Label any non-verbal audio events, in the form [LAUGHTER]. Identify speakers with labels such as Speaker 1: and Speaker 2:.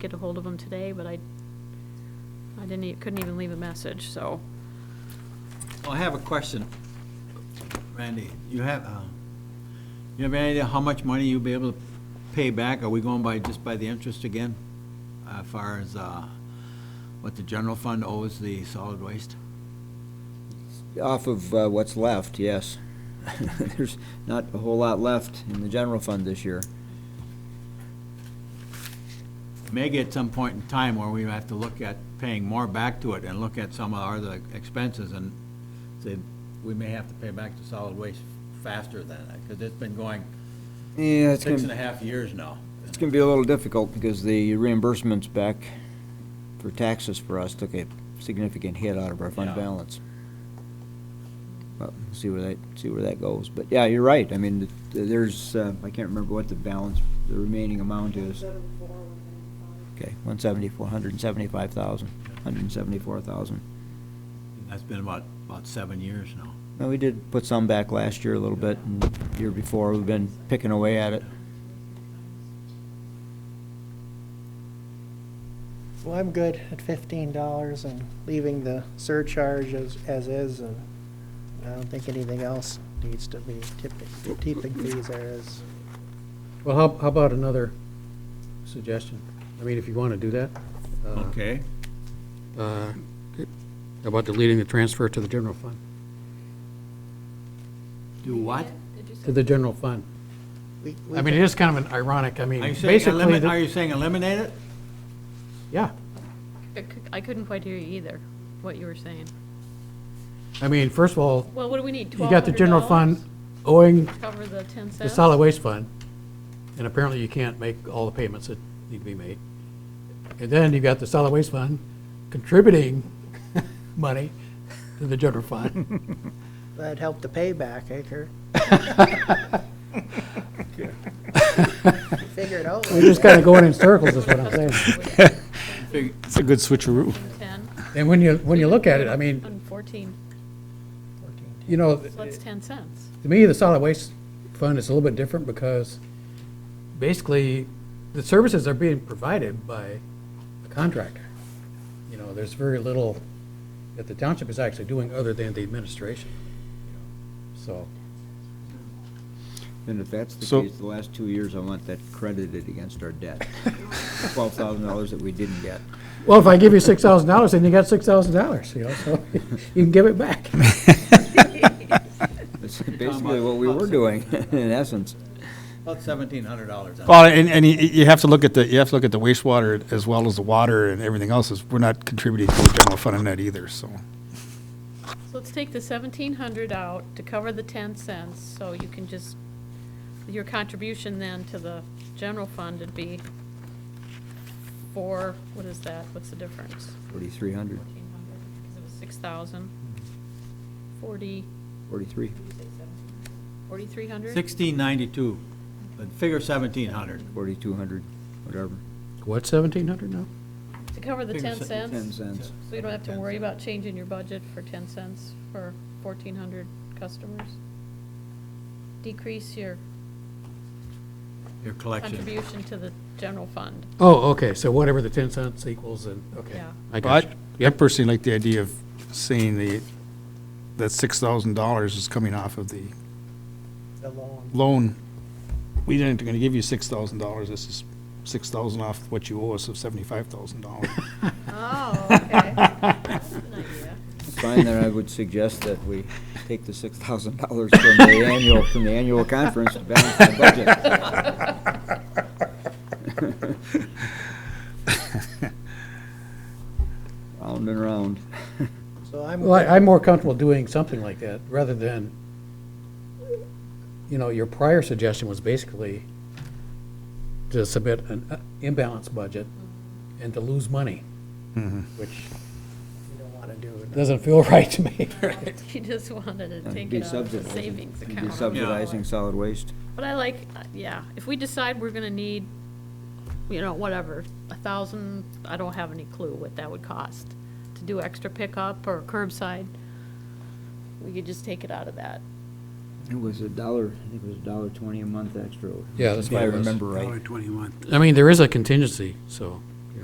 Speaker 1: get a hold of him today, but I, I didn't, e- couldn't even leave a message, so.
Speaker 2: Well, I have a question. Randy, you have, uh, you have any idea how much money you'll be able to pay back? Are we going by, just by the interest again? As far as uh, what the general fund owes the solid waste?
Speaker 3: Off of uh, what's left, yes. [LAUGHS] There's not a whole lot left in the general fund this year.
Speaker 2: Maybe at some point in time where we have to look at paying more back to it and look at some of our other expenses and say, we may have to pay back to solid waste faster than, because it's been going
Speaker 3: Yeah, it's
Speaker 2: six and a
Speaker 3: gonna,
Speaker 2: half years now.
Speaker 3: it's gonna be a little difficult because the reimbursements back for taxes for us took a significant hit out of our fund
Speaker 2: Yeah.
Speaker 3: balance. Well, we'll see where that, see where that goes. But yeah, you're right. I mean, th- there's, uh, I can't remember what the balance, the remaining amount is. Okay, one seventy-four, hundred and seventy-five thousand, hundred and seventy-four thousand.
Speaker 2: That's been about, about seven years now.
Speaker 3: Well, we did put some back last year a little bit, and the year before, we've been picking away at it.
Speaker 4: Well, I'm good at fifteen dollars and leaving the surcharge as, as is, and I don't think anything else needs to be tipping, tipping fees there is.
Speaker 5: Well, how, how about another suggestion? I mean, if you want to do that. uh,
Speaker 2: Okay?
Speaker 5: uh, About deleting the transfer to the general fund,
Speaker 2: Do what?
Speaker 5: to the general fund.
Speaker 4: We- we
Speaker 5: I mean, it is kind of an ironic, I mean,
Speaker 2: Are you saying
Speaker 5: basically,
Speaker 2: eliminate,
Speaker 5: the-
Speaker 2: are you saying eliminate it?
Speaker 5: yeah.
Speaker 1: I cou- I couldn't quite hear you either, what you were saying.
Speaker 5: I mean, first of all,
Speaker 1: Well, what do we need,
Speaker 5: you
Speaker 1: twelve
Speaker 5: got the
Speaker 1: hundred
Speaker 5: general fund
Speaker 1: dollars?
Speaker 5: owing
Speaker 1: Cover the ten
Speaker 5: the
Speaker 1: cents?
Speaker 5: solid waste fund, and apparently you can't make all the payments that need to be made. And then you've got the solid waste fund contributing [LAUGHS] money to the general fund.
Speaker 4: That'd help the payback, eh, I heard. Figure it out.
Speaker 5: We're just kind of going in circles, is what I'm saying.
Speaker 6: It's a good switcheroo.
Speaker 1: [LAUGHS] Ten,
Speaker 5: And when you, when you look at it, I mean,
Speaker 1: and fourteen,
Speaker 5: you know,
Speaker 1: so that's ten cents.
Speaker 5: to me, the solid waste fund is a little bit different because basically, the services are being provided by a contractor. You know, there's very little that the township is actually doing other than the administration. So,
Speaker 3: And if that's the
Speaker 6: So-
Speaker 3: case, the last two years, I want that credited against our [LAUGHS] debt. Twelve thousand dollars that we didn't get.
Speaker 5: well, if I give you six thousand dollars, then you got six thousand dollars, you know, so [LAUGHS] you can give it back.
Speaker 3: That's basically what we were doing, [LAUGHS] in essence.
Speaker 2: About seventeen hundred dollars.
Speaker 6: Well, and, and you, you have to look at the, you have to look at the wastewater as well as the water and everything else, is we're not contributing to the general fund on that either, so.
Speaker 1: So let's take the seventeen hundred out to cover the ten cents, so you can just, your contribution then to the general fund would be four, what is that, what's the difference?
Speaker 3: Forty-three hundred,
Speaker 1: Fourteen hundred, because it was six thousand, forty,
Speaker 3: forty-three,
Speaker 1: forty-three hundred?
Speaker 2: Sixteen ninety-two, but figure seventeen hundred.
Speaker 3: forty-two hundred, whatever.
Speaker 5: What, seventeen hundred now?
Speaker 1: To cover the ten
Speaker 2: Figure se-
Speaker 3: Ten
Speaker 1: cents,
Speaker 3: cents.
Speaker 1: so you don't have to worry about changing your budget for ten cents for fourteen hundred customers? Decrease your
Speaker 2: Your collection.
Speaker 1: contribution to the general fund,
Speaker 5: Oh, okay, so whatever the ten cents equals and, okay.
Speaker 1: yeah.
Speaker 5: I got
Speaker 6: But
Speaker 5: you.
Speaker 6: I personally like the idea of seeing the, that six thousand dollars is coming off of the
Speaker 4: The loan.
Speaker 6: loan. We didn't, gonna give you six thousand dollars, this is six thousand off what you owe us of seventy-five thousand dollars.
Speaker 1: Oh, [LAUGHS] okay. That's
Speaker 3: [LAUGHS]
Speaker 1: an idea.
Speaker 3: Fine, then I would suggest that we take the six thousand dollars from the annual, from the annual conference to balance the budget. Round and round.
Speaker 4: So I'm,
Speaker 5: Well, I- I'm more comfortable doing something like that, rather than, you know, your prior suggestion was basically to submit an uh, imbalanced budget and to lose money, which
Speaker 4: we don't want to do it.
Speaker 5: doesn't feel [LAUGHS] right to me.
Speaker 1: [LAUGHS] You just wanted to
Speaker 3: And
Speaker 1: take
Speaker 3: be
Speaker 1: it out of the
Speaker 3: subsidizing-
Speaker 1: savings
Speaker 3: and
Speaker 1: account.
Speaker 3: Be subsidizing solid waste.
Speaker 1: But I like, uh, yeah, if we decide we're gonna need, you know, whatever, a thousand, I don't have any clue what that would cost to do extra pickup or curbside, we could just take it out of that.
Speaker 3: It was a dollar, I think it was a dollar twenty a month extra.
Speaker 5: Yeah, that's
Speaker 3: If I
Speaker 5: what it was.
Speaker 3: remember right.
Speaker 5: I mean, there is a contingency, so